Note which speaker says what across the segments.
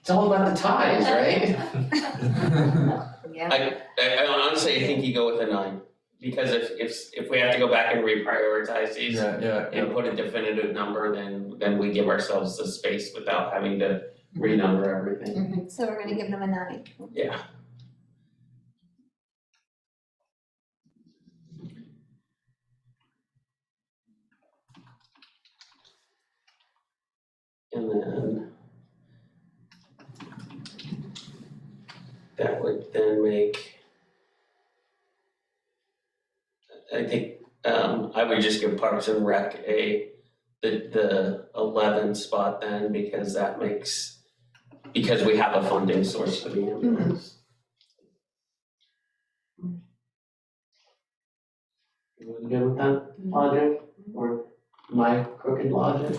Speaker 1: It's all about the ties, right?
Speaker 2: Yeah.
Speaker 3: I, I, I honestly think you go with a nine, because if, if, if we have to go back and reprioritize these
Speaker 1: Yeah, yeah, yeah.
Speaker 3: and put a definitive number, then, then we give ourselves the space without having to
Speaker 1: Mm-hmm.
Speaker 3: renumber everything.
Speaker 2: So we're gonna give them a nine.
Speaker 3: Yeah. And then that would then make I think um I would just give Parks and Rec a the the eleven spot then because that makes because we have a funding source for the ambulance. You wanna go with that logic or my crooked logic?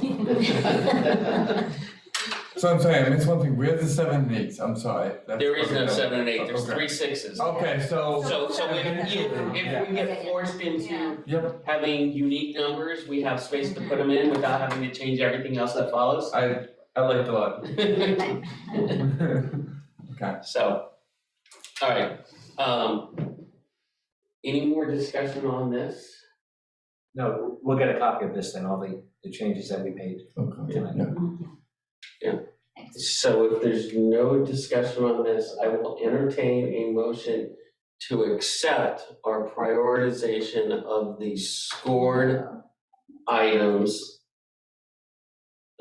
Speaker 1: So I'm saying, I missed one thing, where's the seven and eights, I'm sorry. that's-
Speaker 3: There is no
Speaker 1: okay.
Speaker 3: seven and eight, there's
Speaker 1: Okay.
Speaker 3: three sixes.
Speaker 1: Okay, so,
Speaker 3: So so if you if we get forced
Speaker 2: Yeah.
Speaker 3: into
Speaker 1: Yep.
Speaker 3: having unique numbers, we have space to put them in without having to change everything else that follows.
Speaker 1: I, I liked a lot.
Speaker 3: So, all right, um, any more discussion on this?
Speaker 4: No, we'll get a copy of this then, all the, the changes that we made
Speaker 1: Okay,
Speaker 4: tonight.
Speaker 1: yeah.
Speaker 3: So if there's no discussion on this, I will entertain a motion to accept our prioritization of the scored items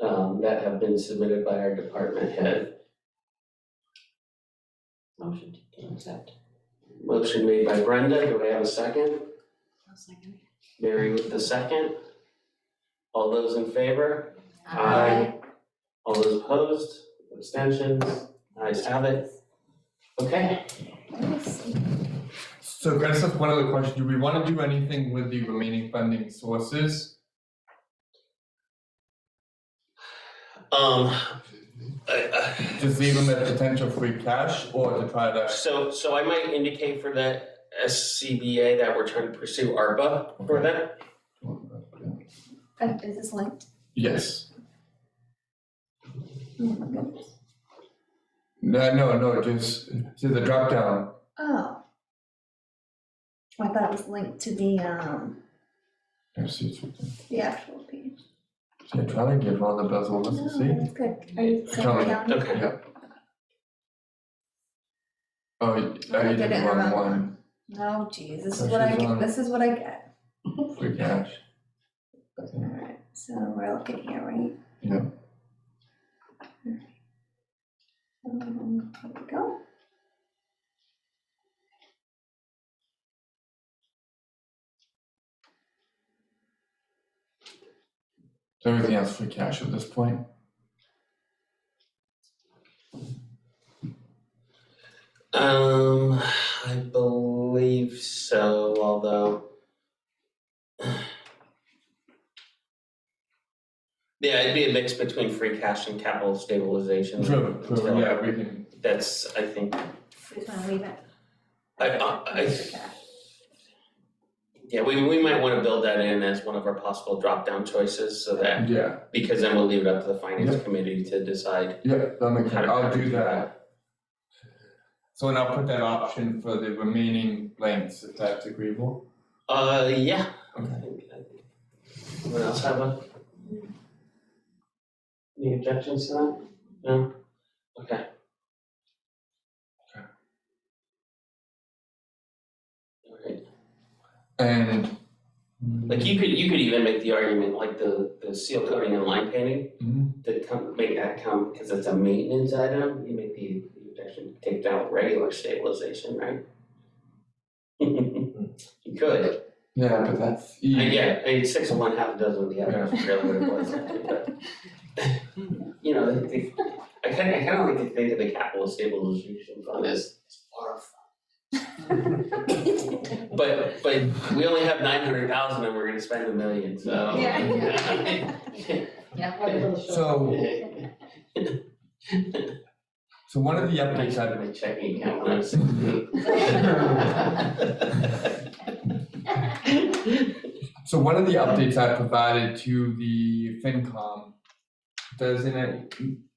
Speaker 3: um, that have been submitted by our department head. Motion to accept. Motion made by Brenda, do I have a second? Mary with the second. All those in favor? Aye. All those opposed, abstentions, ayes have it. Okay,
Speaker 1: So can I just ask one other question, do we wanna do anything with the remaining funding sources?
Speaker 3: um, I-
Speaker 1: Just leave them as potential free cash or to try
Speaker 3: I-
Speaker 1: to?
Speaker 3: so, so I might indicate for the SCBA that we're trying to pursue ARPA for that.
Speaker 2: Uh, Is this linked? Oh
Speaker 1: Yes. No, no, no, just, to the drop down.
Speaker 2: Oh. I thought it was linked to the, um,
Speaker 1: Let's see, it's right there.
Speaker 2: the actual page.
Speaker 1: Yeah, try to get one of the bells on
Speaker 2: No,
Speaker 1: us to see.
Speaker 2: that's good. Are you
Speaker 1: Tell me.
Speaker 2: sitting down?
Speaker 3: Okay,
Speaker 1: Oh, y-
Speaker 2: I
Speaker 1: oh, you
Speaker 2: did it
Speaker 1: did
Speaker 2: in the
Speaker 1: one,
Speaker 2: wrong
Speaker 1: one,
Speaker 2: No, Oh, geez, this
Speaker 1: So
Speaker 2: is what I,
Speaker 1: she's
Speaker 2: get-
Speaker 1: on-
Speaker 2: this is what I get.
Speaker 1: free cash.
Speaker 2: Alright, so we're looking here, right?
Speaker 1: Yeah.
Speaker 2: Um, There we go.
Speaker 1: So everything else free cash at this point?
Speaker 3: um, I believe so, although. Yeah, it'd be a mix between free cash and capital stabilization.
Speaker 1: True,
Speaker 3: So
Speaker 1: true, yeah, we can,
Speaker 3: That's, I think,
Speaker 2: Just wanna leave it.
Speaker 3: I- I- I-
Speaker 2: Okay.
Speaker 3: Yeah, we we might wanna build that in as one of our possible drop-down choices so that,
Speaker 1: yeah,
Speaker 3: because then we'll leave it up to the finance
Speaker 1: Yeah.
Speaker 3: committee to decide
Speaker 1: yeah, that makes,
Speaker 3: how to.
Speaker 1: I'll do that. So and I'll put that option for the remaining blanks, if that's agreeable.
Speaker 3: Uh, yeah.
Speaker 1: Okay.
Speaker 3: I think- I think- Anyone else have a? Any objections to that? No? Okay.
Speaker 1: Okay.
Speaker 3: Alright.
Speaker 1: And.
Speaker 3: Like you could, you could even make the argument, like the, the seal coating and line painting,
Speaker 1: Mhm.
Speaker 3: to come, make that come, because it's a maintenance item, you make the, you could actually take down regular stabilization, right? You could,
Speaker 1: Yeah, but that's.
Speaker 3: I get, I mean, six of one, half a dozen of the other, is really what it was, actually, but. You know, they, they, I kinda, I kinda like to think of the capital stabilization fund as, as far off. But, but we only have nine hundred thousand and we're gonna spend a million, so.
Speaker 2: Yeah.
Speaker 1: So, so one of the updates
Speaker 3: I
Speaker 1: I've
Speaker 3: have
Speaker 1: been
Speaker 3: my checking account when I'm sixteen.
Speaker 1: So one of the updates I provided to the FinCom, doesn't it